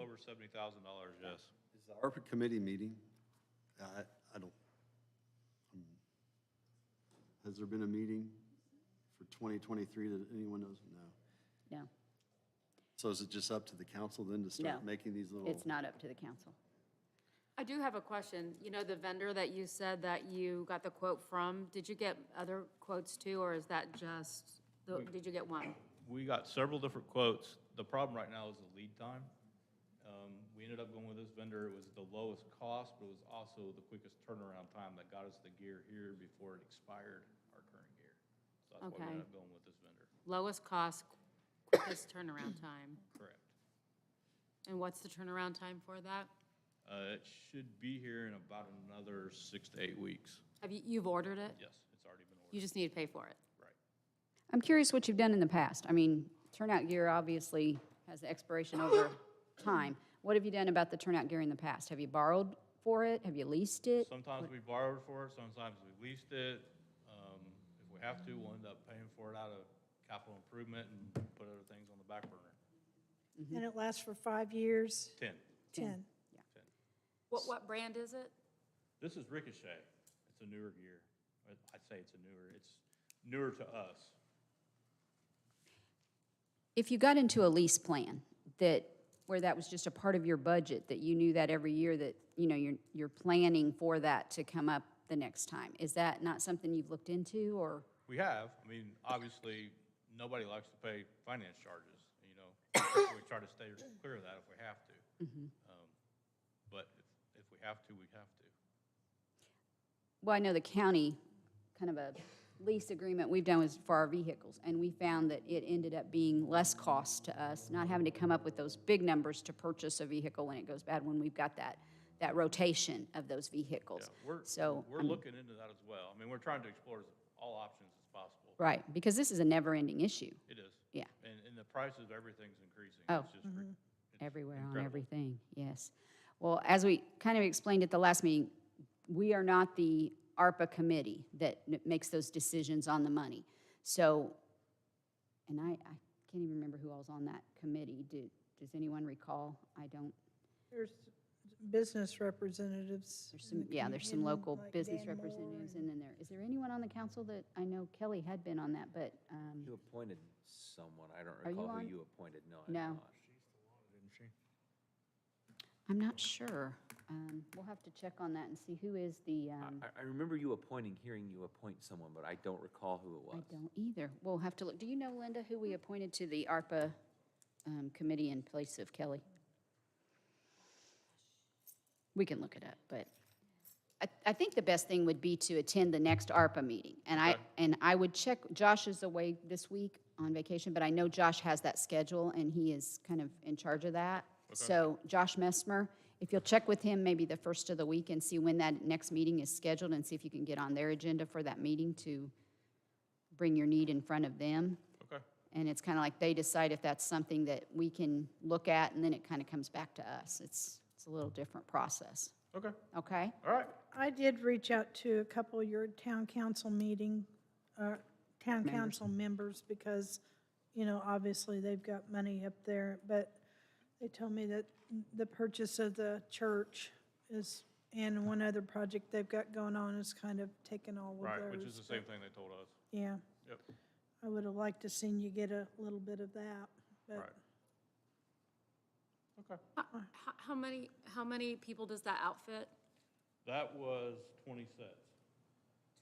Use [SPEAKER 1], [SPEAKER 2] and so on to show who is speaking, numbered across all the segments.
[SPEAKER 1] over seventy thousand dollars, yes.
[SPEAKER 2] Is the ARPA committee meeting? I, I don't. hmm. Has there been a meeting for 2023 that anyone knows? No.
[SPEAKER 3] No,
[SPEAKER 2] So is it just up to the council then to start
[SPEAKER 3] No.
[SPEAKER 2] making these little?
[SPEAKER 3] it's not up to the council.
[SPEAKER 4] I do have a question. You know, the vendor that you said that you got the quote from, did you get other quotes too, or is that just, the- did you get one?
[SPEAKER 1] We got several different quotes. The problem right now is the lead time. Um, we ended up going with this vendor. It was the lowest cost, but it was also the quickest turnaround time that got us the gear here before it expired, our current gear. So that's why we
[SPEAKER 4] Okay.
[SPEAKER 1] ended up going with this vendor.
[SPEAKER 4] Lowest cost, quickest turnaround time.
[SPEAKER 1] Correct.
[SPEAKER 4] And what's the turnaround time for that?
[SPEAKER 1] Uh, it should be here in about another six to eight weeks.
[SPEAKER 4] Have you, you've ordered it?
[SPEAKER 1] Yes, it's already been ordered.
[SPEAKER 4] You just need to pay for it.
[SPEAKER 1] Right.
[SPEAKER 3] I'm curious what you've done in the past. I mean, turnout gear obviously has expiration over time. What have you done about the turnout gear in the past? Have you borrowed for it? Have you leased it?
[SPEAKER 1] Sometimes we borrowed for it, sometimes we leased it. Um, If we have to, we'll end up paying for it out of capital improvement and put other things on the back burner.
[SPEAKER 5] And it lasts for five years,
[SPEAKER 1] Ten,
[SPEAKER 5] 10.
[SPEAKER 4] What, what brand is it?
[SPEAKER 1] this is Ricochet. It's a newer gear. I- I'd say it's a newer, it's newer to us.
[SPEAKER 3] If you got into a lease plan that, where that was just a part of your budget, that you knew that every year that, you know, you're, you're planning for that to come up the next time, is that not something you've looked into or?
[SPEAKER 1] We have, I mean, obviously, nobody likes to pay finance charges, you know. We try to stay clear of that if we have to. Um, But if- if we have to, we have to.
[SPEAKER 3] Well, I know the county, kind of a lease agreement we've done was for our vehicles, and we found that it ended up being less cost to us, not having to come up with those big numbers to purchase a vehicle when it goes bad, when we've got that, that rotation of those vehicles.
[SPEAKER 1] Yeah, we're,
[SPEAKER 3] So, um,
[SPEAKER 1] we're looking into that as well. I mean, we're trying to explore as- all options as possible.
[SPEAKER 3] right, because this is a never-ending issue
[SPEAKER 1] It is.
[SPEAKER 3] Yeah.
[SPEAKER 1] And, and the price of everything's increasing.
[SPEAKER 3] Oh.
[SPEAKER 1] It's just re- it's
[SPEAKER 3] everywhere on
[SPEAKER 1] incredible.
[SPEAKER 3] everything, yes. Well, as we kind of explained at the last meeting, we are not the ARPA committee that n- makes those decisions on the money. So, and I, I can't even remember who all's on that committee. Do, does anyone recall? I don't.
[SPEAKER 5] There's business representatives.
[SPEAKER 3] There's
[SPEAKER 5] in
[SPEAKER 3] some,
[SPEAKER 5] the
[SPEAKER 3] yeah, there's some
[SPEAKER 5] commu- and
[SPEAKER 3] local
[SPEAKER 5] like
[SPEAKER 3] business
[SPEAKER 5] Dan Moore
[SPEAKER 3] representatives
[SPEAKER 5] and-
[SPEAKER 3] and then there, is there anyone on the council that, I know Kelly had been on that, but, um,
[SPEAKER 6] You appointed someone, I don't
[SPEAKER 3] Are you
[SPEAKER 6] recall
[SPEAKER 3] on?
[SPEAKER 6] who you appointed, no, I'm
[SPEAKER 3] No.
[SPEAKER 6] not.
[SPEAKER 3] I'm not sure. Um, we'll have to check on that and see who is the,
[SPEAKER 6] I-
[SPEAKER 3] um,
[SPEAKER 6] I, I remember you appointing, hearing you appoint someone, but I don't recall who it
[SPEAKER 3] I
[SPEAKER 6] was.
[SPEAKER 3] don't either. We'll have to look. Do you know, Linda, who we appointed to the ARPA um, committee in place of Kelly? We can look it up, but I, I think the best thing would be to attend the next ARPA meeting. And I,
[SPEAKER 1] Okay.
[SPEAKER 3] and I would check, Josh is away this week on vacation, but I know Josh has that schedule and he is kind of in charge of that. So Josh Messmer, if you'll check with him maybe the first of the week and see when that next meeting is scheduled and see if you can get on their agenda for that meeting to bring your need in front of them.
[SPEAKER 1] Okay,
[SPEAKER 3] And it's kind of like they decide if that's something that we can look at, and then it kind of comes back to us. It's, it's a little different process,
[SPEAKER 1] okay,
[SPEAKER 3] okay?
[SPEAKER 1] all right.
[SPEAKER 5] I did reach out to a couple of your town council meeting, uh, town council members because, you know, obviously they've got money up there, but they told me that the purchase of the church is, and one other project they've got going on is kind of taking all of theirs.
[SPEAKER 1] Right, which is the same thing they told us.
[SPEAKER 5] Yeah.
[SPEAKER 1] Yep,
[SPEAKER 5] I would have liked to seen you get a little bit of that,
[SPEAKER 1] right.
[SPEAKER 5] but
[SPEAKER 1] Okay.
[SPEAKER 4] How, how many, how many people does that outfit?
[SPEAKER 1] That was twenty sets.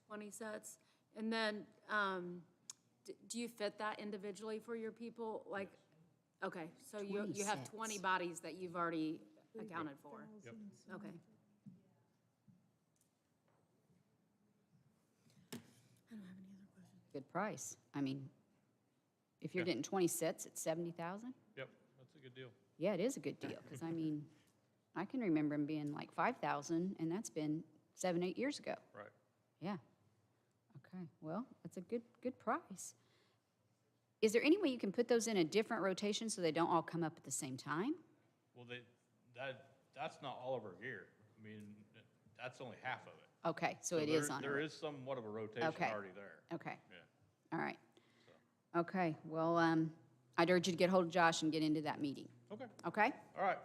[SPEAKER 4] Twenty sets? And then, um, d- do you fit that individually for your people? Like, okay, so you,
[SPEAKER 3] 20
[SPEAKER 4] you have
[SPEAKER 3] sets.
[SPEAKER 4] twenty bodies that you've already accounted for?
[SPEAKER 1] Yep.
[SPEAKER 4] Okay.
[SPEAKER 3] Good price. I mean, if you're getting 20 sets at 70,000,
[SPEAKER 1] Yep, that's a good deal.
[SPEAKER 3] yeah, it is a good deal, because I mean, I can remember them being like 5,000, and that's been seven, eight years ago.
[SPEAKER 1] Right.
[SPEAKER 3] Yeah. Okay, well, that's a good, good price. Is there any way you can put those in a different rotation so they don't all come up at the same time?
[SPEAKER 1] Well, they, that, that's not all of our gear. I mean, that's only half of it.
[SPEAKER 3] Okay, so it
[SPEAKER 1] there-
[SPEAKER 3] is on a
[SPEAKER 1] There
[SPEAKER 3] ro-
[SPEAKER 1] is somewhat of a rotation
[SPEAKER 3] Okay.
[SPEAKER 1] already there.
[SPEAKER 3] Okay,
[SPEAKER 1] Yeah.
[SPEAKER 3] all right. Okay, well, um, I'd urge you to get hold of Josh and get into that meeting,
[SPEAKER 1] Okay,
[SPEAKER 3] okay?
[SPEAKER 1] all right.